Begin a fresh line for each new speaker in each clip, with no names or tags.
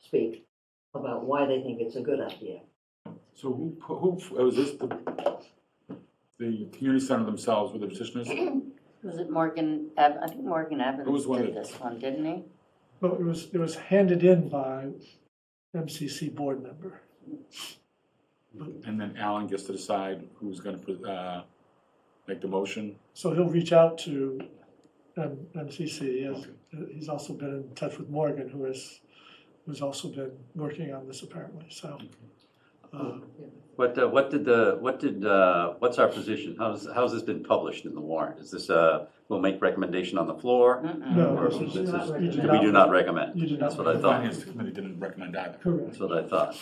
speak about why they think it's a good idea.
So who, pu- who, oh, was this the, the community center themselves with the petitioners?
Was it Morgan, Ev- I think Morgan Evans
was one
did
that-
this one, didn't he?
Well, it was, it was handed in by MCC board member.
And then Alan gets to decide who's gonna, put, uh, make the motion?
So he'll reach out to M- MCC. He has- He's also been in touch with Morgan, who has, who's also been working on this apparently, so. uh,
What, uh, what did the, what did, uh, what's our position? How's, how's this been published in the warrant? Is this, uh, we'll make recommendation on the floor?
Mm-mm.
No.
Or
this is-
this is-
not
you did
We do not recommend.
You did not.
Mm-hmm. That's what I
The
thought.
finance committee didn't recommend either.
Correct.
That's what I thought.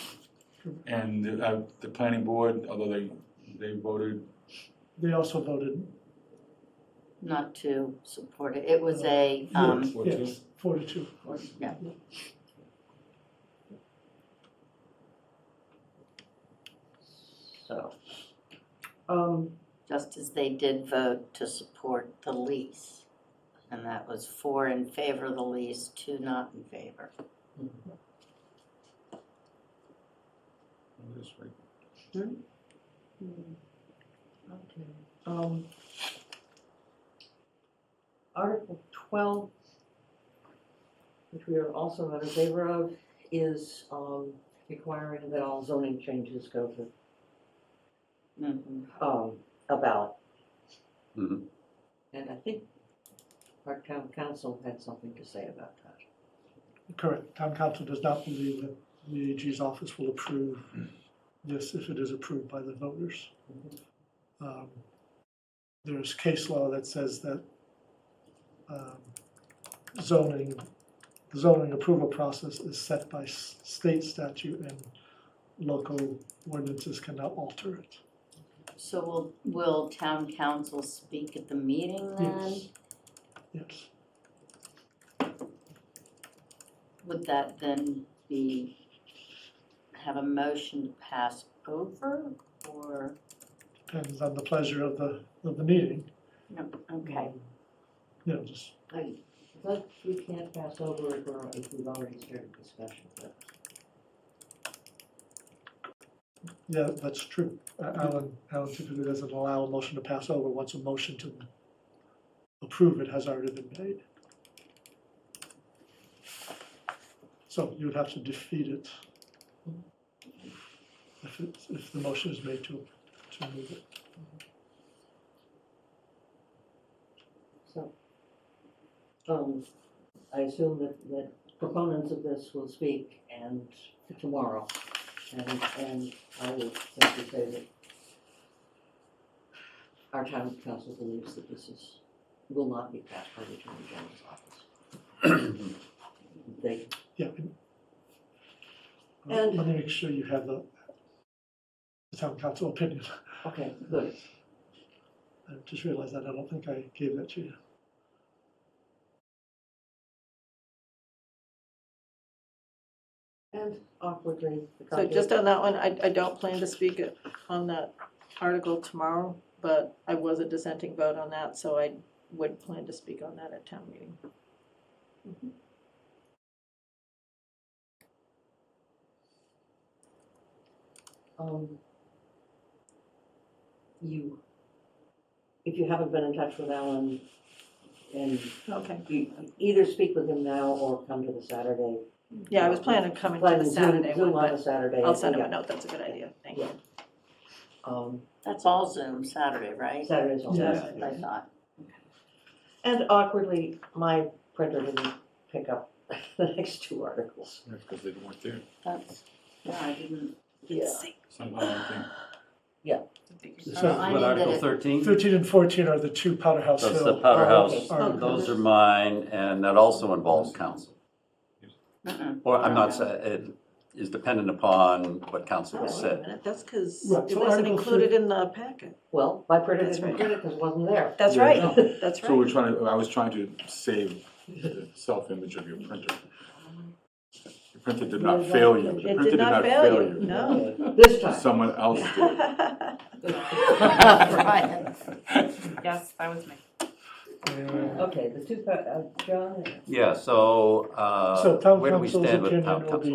And, uh, the planning board, although they, they voted,
They also voted,
Not to support it. It was a, um,
Four two?
yes, four to two.
yeah. So,
Um,
just as they did vote to support the lease. And that was four in favor of the lease, two not in favor.
oh, that's right.
Okay, um. Article twelve, which we are also not in favor of, is, um, requiring that all zoning changes go to,
Mhm.
um, a ballot.
Mhm.
And I think our town council had something to say about that.
Correct. Town council does not believe that the AG's office will approve this if it is approved by the voters. Um, There's case law that says that um, zoning, the zoning approval process is set by s- state statute and local ordinances cannot alter it.
So will, will town council speak at the meeting then?
Yes. Yes.
Would that then be, have a motion to pass over or,
Depends on the pleasure of the, of the meeting.
no, okay.
Mm-hmm. You know, just,
I, but we can't pass over if we're, if we've already started discussion, but
yeah, that's true. Uh, Alan, Alan typically doesn't allow a motion to pass over once a motion to approve it has already been made. So you would have to defeat it if it's, if the motion is made to, to move it.
so. Um, I assume that, that proponents of this will speak and tomorrow, and, and I would simply say that our town council believes that this is, will not be passed by the attorney general's office. They
Yeah. and-
And-
Let me make sure you have the, the town council opinion.
Okay, good.
I just realized that I don't think I gave that to you.
And awkwardly, the
So just
copy-
on that one, I, I don't plan to speak on that article tomorrow, but I was a dissenting vote on that, so I would plan to speak on that at town meeting.
um, you, if you haven't been in touch with Alan, and
Okay.
you either speak with him now or come to the Saturday.
Yeah, I was planning on coming to
Plan
the
Zoom-
Saturday one,
Zoom on a
but
Saturday.
I'll send him a
yeah.
note, that's a good idea, thank you.
Um,
That's all Zoom Saturday, right?
Saturdays all.
That's
Yeah.
what I thought.
And awkwardly, my printer didn't pick up the next two articles.
That's because they weren't there
That's, yeah, I didn't.
Yeah.
somehow, I think.
This is
So I
what,
needed
Article
it.
thirteen?
Thirteen and fourteen are the two Powder House
Mm-hmm. That's
Hill.
the powder house.
are-
Oh, okay.
Those are mine, and that also involves council.
Mm-mm.
Or I'm not, sa- it is dependent upon what council
Oh,
has
wait a
said.
minute, that's because
Right,
it
so
wasn't
Article
included in the packet.
Well, my printer
That's
didn't
right.
print it because it wasn't there.
That's
Yeah,
right, that's
So we're
right.
trying to, I was trying to save the self-image of your printer. Your printer did not fail you. The
It
printer
did not fail you, no.
This time.
Someone else did.
Brian.
Yes, that was me.
Yeah.
Okay, the two, pa- uh, John and
Yeah, uh, so,
So
uh,
town
where do we
council's
stand with
opinion
town
will
council?
be